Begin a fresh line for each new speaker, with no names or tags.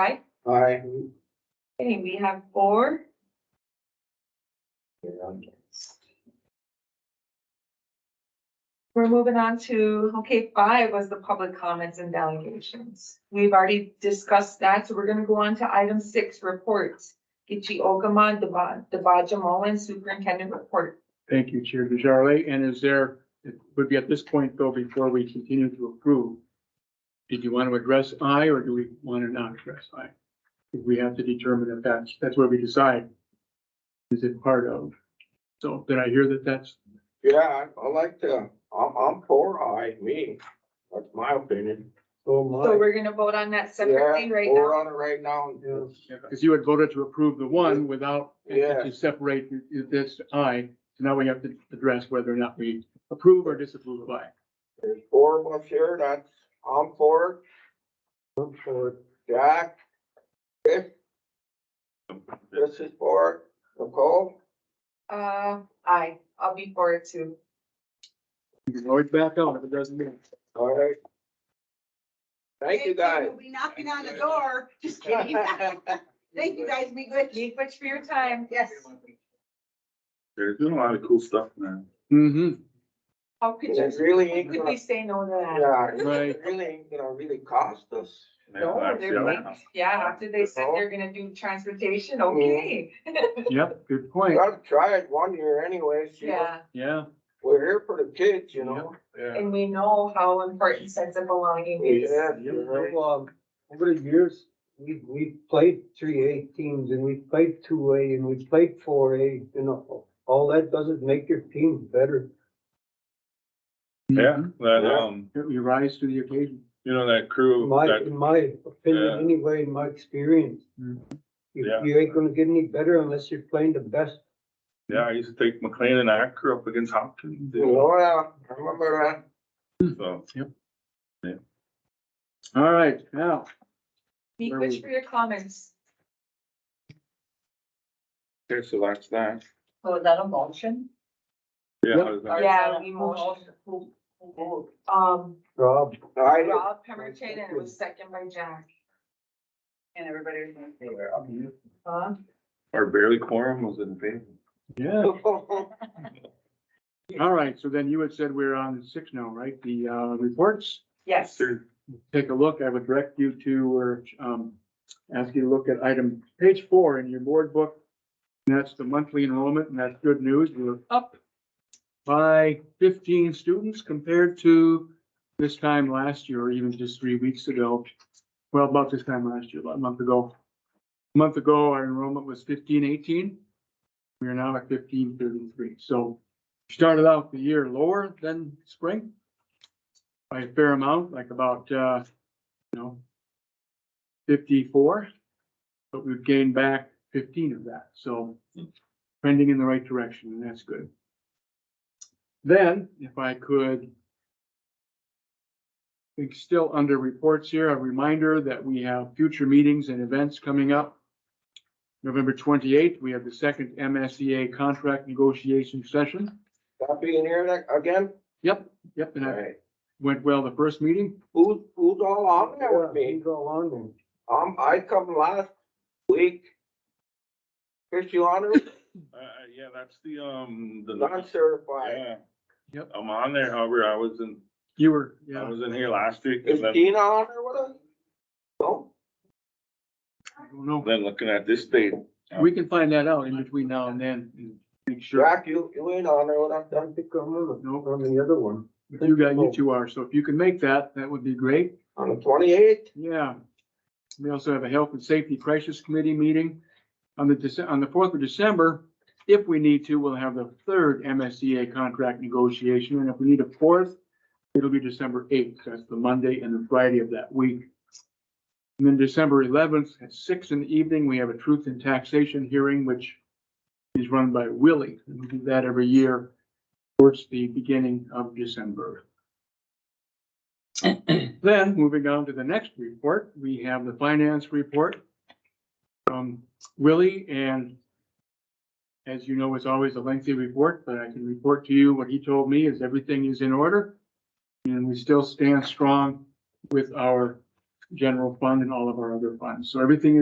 Aye.
Aye.
Okay, we have four. We're moving on to, okay, five was the public comments and delegations. We've already discussed that, so we're gonna go on to item six, reports. Gitche Okama, Deba- Debaja Mullen, Superintendent Report.
Thank you, Chair DeJarle. And is there, it would be at this point though, before we continue to approve, did you want to address I or do we want to not address I? We have to determine if that's, that's where we decide. Is it part of? So did I hear that that's,
Yeah, I I like to, I'm, I'm for I, me, that's my opinion.
So we're gonna vote on that separately
Yeah,
right
We're
now.
on it right now.
because you had voted to approve the one without,
Yeah.
to separate this I. So now we have to address whether or not we approve or disapprove of I.
There's four of us here, that's, I'm for it. Jack, Chris. This is for it, Nicole,
Uh, aye, I'll be for it too.
You can always back out if it doesn't mean.
all right. Thank you, guys.
We'll be knocking on the door, just kidding. Thank you, guys, be good.
Thank you much for your time.
Yes.
They're doing a lot of cool stuff now.
Mm-hmm,
How could
It
you,
really
how
ain't
could
gonna,
we say no to that?
yeah, it
right.
really ain't gonna really cost us.
No, they're like, yeah, after they said they're gonna do transportation,
Mm-hmm.
okay,
Yep, good
We
point.
gotta try it one year anyways, you know,
yeah,
Yeah.
we're here for the kids, you know?
and we know how important sense of belonging is.
Yeah,
Yeah,
you're right.
well, um, over the years, we, we played three A teams and we played two A and we played four A, you know. All that does is make your team better.
Mm-hmm.
Yeah, that,
Yeah.
um,
You rise to the occasion.
you know, that crew,
In my,
that,
in my
Yeah.
opinion, anyway, in my experience.
Mm.
You,
Yeah.
you ain't gonna get any better unless you're playing the best.
yeah, I used to take McLean and Acker up against Hopkins. you know,
Oh, yeah, I remember that.
so.
All right, now,
Be good for your comments.
Okay, so that's that.
So that a motion?
Yeah,
Yep.
how does that-
Yeah, we motion, um,
Rob,
I did.
Rob Pemberton, and it was second by Jack.
And everybody was in favor.
Huh?
our barely quorum was in favor.
yeah, all right, so then you had said we're on six now, right? The uh, reports,
Yes,
Sure.
take a look, I would direct you to, or um, ask you to look at item, page four in your board book. And that's the monthly enrollment, and that's good news, we're up by fifteen students compared to this time last year, or even just three weeks ago. Well, about this time last year, about a month ago. A month ago, our enrollment was fifteen eighteen. We are now at fifteen thirty-three, so we started out the year lower than spring by a fair amount, like about, uh, you know, fifty-four, but we've gained back fifteen of that, so trending in the right direction, and that's good. Then, if I could, I think still under reports here, a reminder that we have future meetings and events coming up. November twenty-eighth, we have the second MSEA contract negotiation session.
That being here that- again,
Yep, yep, and that
Alright.
went well the first meeting.
who's, who's all on there with me?
you go on and
Um, I come last week. Chris, you on it?
Uh, yeah, that's the, um, the.
non-certified.
Yeah.
Yep.
I'm on there, however, I was in,
You were,
I
yeah,
was in here last week
Is
and then,
Tina on there with us? No?
I don't know.
then looking at this date.
We can find that out in between now and then and make sure.
Jack, you, you ain't on there with us,
I
then?
think I'm on,
Nope.
on the other one.
You got, you two are, so if you can make that, that would be great.
On the twenty-eighth?
Yeah. We also have a Health and Safety Crisis Committee meeting on the, Dece- on the fourth of December. If we need to, we'll have the third MSCA contract negotiation, and if we need a fourth, it'll be December eighth, that's the Monday and the Friday of that week. And then December eleventh at six in the evening, we have a Truth and Taxation hearing, which is run by Willie. We do that every year towards the beginning of December. Then, moving on to the next report, we have the finance report. from Willie, and as you know, it's always a lengthy report, but I can report to you what he told me is everything is in order. And we still stand strong with our general fund and all of our other funds. So everything is.